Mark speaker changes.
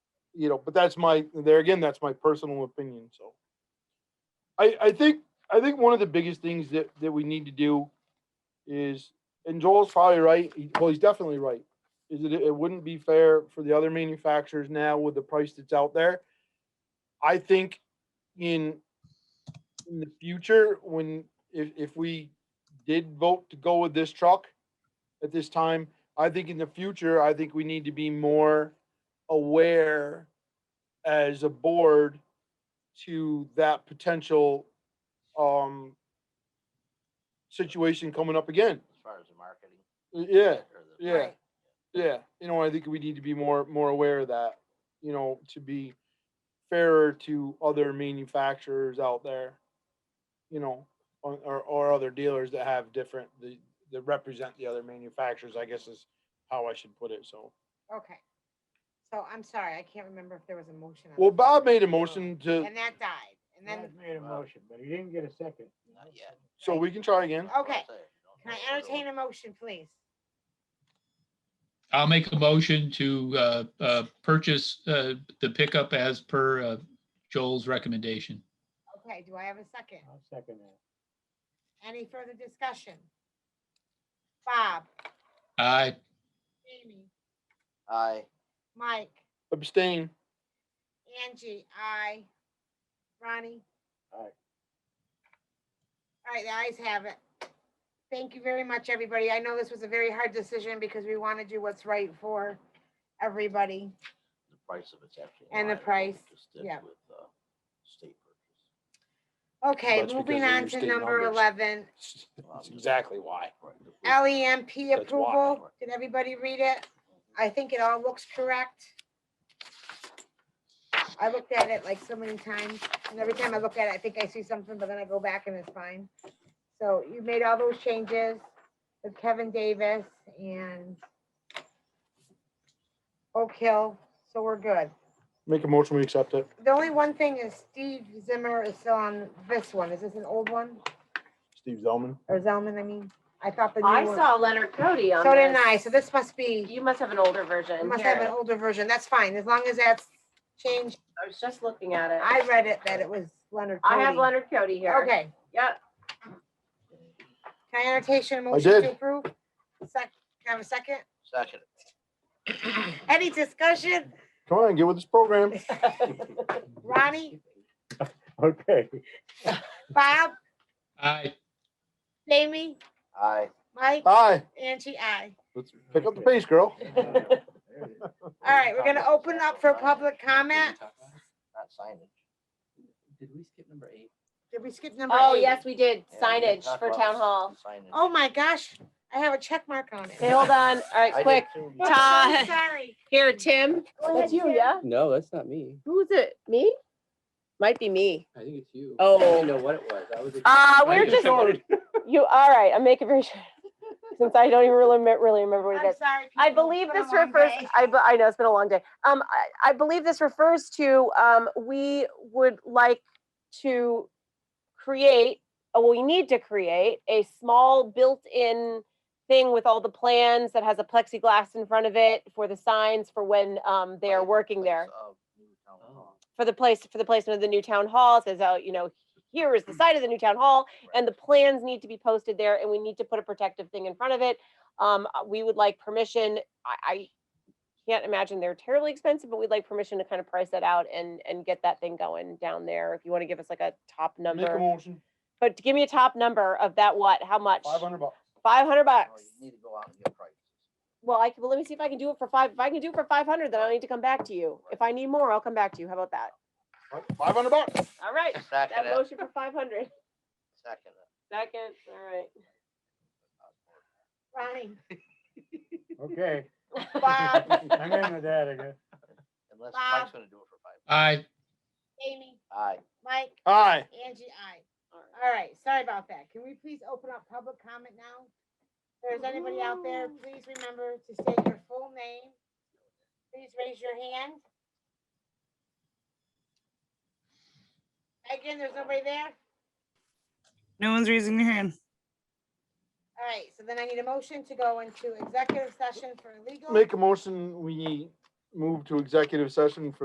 Speaker 1: you know, but that's my, there again, that's my personal opinion, so. I, I think, I think one of the biggest things that, that we need to do is, and Joel's probably right, he- well, he's definitely right. Is that it, it wouldn't be fair for the other manufacturers now with the price that's out there. I think in, in the future, when, if, if we did vote to go with this truck at this time, I think in the future, I think we need to be more aware as a board to that potential um situation coming up again.
Speaker 2: as far as the marketing.
Speaker 1: Y- Yeah,
Speaker 2: or the-
Speaker 1: yeah, yeah. You know, I think we need to be more more aware of that, you know, to be fairer to other manufacturers out there, you know, or or, or other dealers that have different the that represent the other manufacturers, I guess is how I should put it. So
Speaker 3: Okay. So I'm sorry, I can't remember if there was a motion. on the
Speaker 1: Well,
Speaker 3: floor.
Speaker 1: Bob made a motion to,
Speaker 3: And that died. And then,
Speaker 4: Brad made a
Speaker 2: Wow.
Speaker 4: motion, but he didn't get a second.
Speaker 2: Not yet.
Speaker 1: so we can try again.
Speaker 2: That's what I'm
Speaker 3: Okay.
Speaker 2: saying, you don't know
Speaker 3: can I
Speaker 2: whether
Speaker 3: entertain
Speaker 2: we're-
Speaker 3: a motion, please?
Speaker 5: I'll make a motion to uh, uh, purchase uh, the pickup as per uh, Joel's recommendation.
Speaker 3: Okay, do I have a second?
Speaker 4: I'll second that.
Speaker 3: Any further discussion? Bob,
Speaker 5: Aye.
Speaker 3: Jamie,
Speaker 2: Aye,
Speaker 3: Mike,
Speaker 1: Abstain.
Speaker 3: Angie, I, Ronnie?
Speaker 4: Aye.
Speaker 3: All right, the ayes have it. Thank you very much, everybody. I know this was a very hard decision because we want to do what's right for everybody.
Speaker 2: the price of it's actually. in
Speaker 3: And the
Speaker 2: line with what we
Speaker 3: price,
Speaker 2: just did
Speaker 3: yeah.
Speaker 2: With, uh, state purchase.
Speaker 3: Okay,
Speaker 1: That's because
Speaker 3: moving
Speaker 1: they're
Speaker 3: on
Speaker 1: your
Speaker 3: to
Speaker 1: state
Speaker 3: number
Speaker 1: numbers.
Speaker 3: eleven,
Speaker 2: Well, I'm
Speaker 1: That's
Speaker 2: just-
Speaker 1: exactly why.
Speaker 2: Right, Um, the-
Speaker 3: LEMP
Speaker 1: That's why.
Speaker 3: E approval. Did everybody read it? I think it all looks correct. I looked at it like so many times, and every time I look at it, I think I see something, but then I go back and it's fine. So you made all those changes with Kevin Davis and Oak Hill, so we're good.
Speaker 1: Make a motion, we accept it.
Speaker 3: The only one thing is Steve Zimmer is still on this one. Is this an old one?
Speaker 1: Steve Zelman.
Speaker 3: Or Zelman, I mean? I thought the new
Speaker 6: I
Speaker 3: one-
Speaker 6: saw Leonard Cody on
Speaker 3: So did
Speaker 6: this.
Speaker 3: I, so this must be,
Speaker 6: You must have an older version.
Speaker 3: I must
Speaker 6: Here.
Speaker 3: have an older version, that's fine, as long as that's changed.
Speaker 6: I was just looking at it. I,
Speaker 3: I read it that it was Leonard Cody.
Speaker 6: have Leonard Cody here.
Speaker 3: Okay,
Speaker 6: Yep.
Speaker 3: can I entertain a motion
Speaker 1: did.
Speaker 3: to approve? Sec, can I have a second?
Speaker 2: Second.
Speaker 3: Any discussion?
Speaker 1: Come on, get with this program.
Speaker 3: Ronnie,
Speaker 4: Okay,
Speaker 3: Bob,
Speaker 5: Aye.
Speaker 3: Jamie,
Speaker 2: Aye.
Speaker 3: Mike,
Speaker 1: Aye.
Speaker 3: Angie, I.
Speaker 1: Let's pick up the pace, girl.
Speaker 3: All right, we're gonna open up for public comment.
Speaker 2: Not signage.
Speaker 7: Did we skip number eight?
Speaker 3: Did we skip number eight?
Speaker 6: Oh, yes, we did.
Speaker 2: Yeah, we
Speaker 6: Signage
Speaker 2: talked
Speaker 6: for
Speaker 2: about
Speaker 6: town
Speaker 2: s-
Speaker 6: hall.
Speaker 2: signage.
Speaker 3: Oh my gosh, I have a check mark on
Speaker 6: Okay,
Speaker 3: it.
Speaker 6: hold on. All
Speaker 2: I
Speaker 6: right,
Speaker 2: did
Speaker 6: quick.
Speaker 2: too.
Speaker 6: Todd.
Speaker 3: I'm so Sorry.
Speaker 6: Here, Tim.
Speaker 3: Go ahead,
Speaker 6: That's you,
Speaker 3: Tim.
Speaker 6: yeah?
Speaker 7: No, that's not me.
Speaker 6: Who's it? Me? Might be me.
Speaker 7: I think it's you. I
Speaker 6: Oh.
Speaker 7: didn't know what it was. I was.
Speaker 6: Uh,
Speaker 7: I
Speaker 6: we're
Speaker 7: just
Speaker 6: just,
Speaker 7: ordered.
Speaker 6: you, all right, I'm making very sure. Since I don't even really, remem- really remember what it
Speaker 3: I'm
Speaker 6: is.
Speaker 3: sorry.
Speaker 6: I
Speaker 3: people,
Speaker 6: believe
Speaker 3: it's been a
Speaker 6: this
Speaker 3: long
Speaker 6: refers,
Speaker 3: day.
Speaker 6: I, be- I know, it's been a long day. Um, I, I believe this refers to, um, we would like to create, or we need to create a small built-in thing with all the plans that has a plexiglass in front of it for the signs for when, um, they are
Speaker 2: Place-
Speaker 6: working
Speaker 2: place
Speaker 6: there.
Speaker 2: of new town
Speaker 7: Oh.
Speaker 2: hall.
Speaker 6: For the place, for the placement of the new town hall, it says, oh, you know, here is the site of the new town hall, and the plans need to be posted there, and we need to put a protective thing in front of it. Um, uh, we would like permission, I, I can't imagine they're terribly expensive, but we'd like permission to kind of price that out and, and get that thing going down there, if you want to give us like a top
Speaker 1: Make a
Speaker 6: number.
Speaker 1: motion,
Speaker 6: But give me a top number of that what, how much?
Speaker 1: five hundred Oh, bucks.
Speaker 6: Five hundred
Speaker 2: No,
Speaker 6: bucks.
Speaker 2: you Need to go out and get prices.
Speaker 6: Well, I can, well, let me see if I can do it for five, if I can do it for five hundred, then I'll need to come back to you. If I need more, I'll come back to you, how about that?
Speaker 1: Five hundred bucks.
Speaker 6: All right,
Speaker 2: Second
Speaker 6: that
Speaker 2: it,
Speaker 6: motion for five hundred.
Speaker 2: second it.
Speaker 6: Second, all right.
Speaker 3: Ronnie,
Speaker 4: okay,
Speaker 3: Bob,
Speaker 4: I'm in with that, I guess.
Speaker 2: Unless
Speaker 3: Bob.
Speaker 2: Mike's gonna do it for five.
Speaker 5: Aye.
Speaker 3: Jamie,
Speaker 2: Aye.
Speaker 3: Mike,
Speaker 1: Aye.
Speaker 3: Angie, I. All right, sorry about that. Can we please open up public comment now? If there's anybody out there, please remember to state your full name. Please raise your hand. Again, there's nobody there?
Speaker 8: No one's raising their hand.
Speaker 3: All right, so then I need a motion to go into executive session for legal.
Speaker 1: Make a motion, we move to executive session for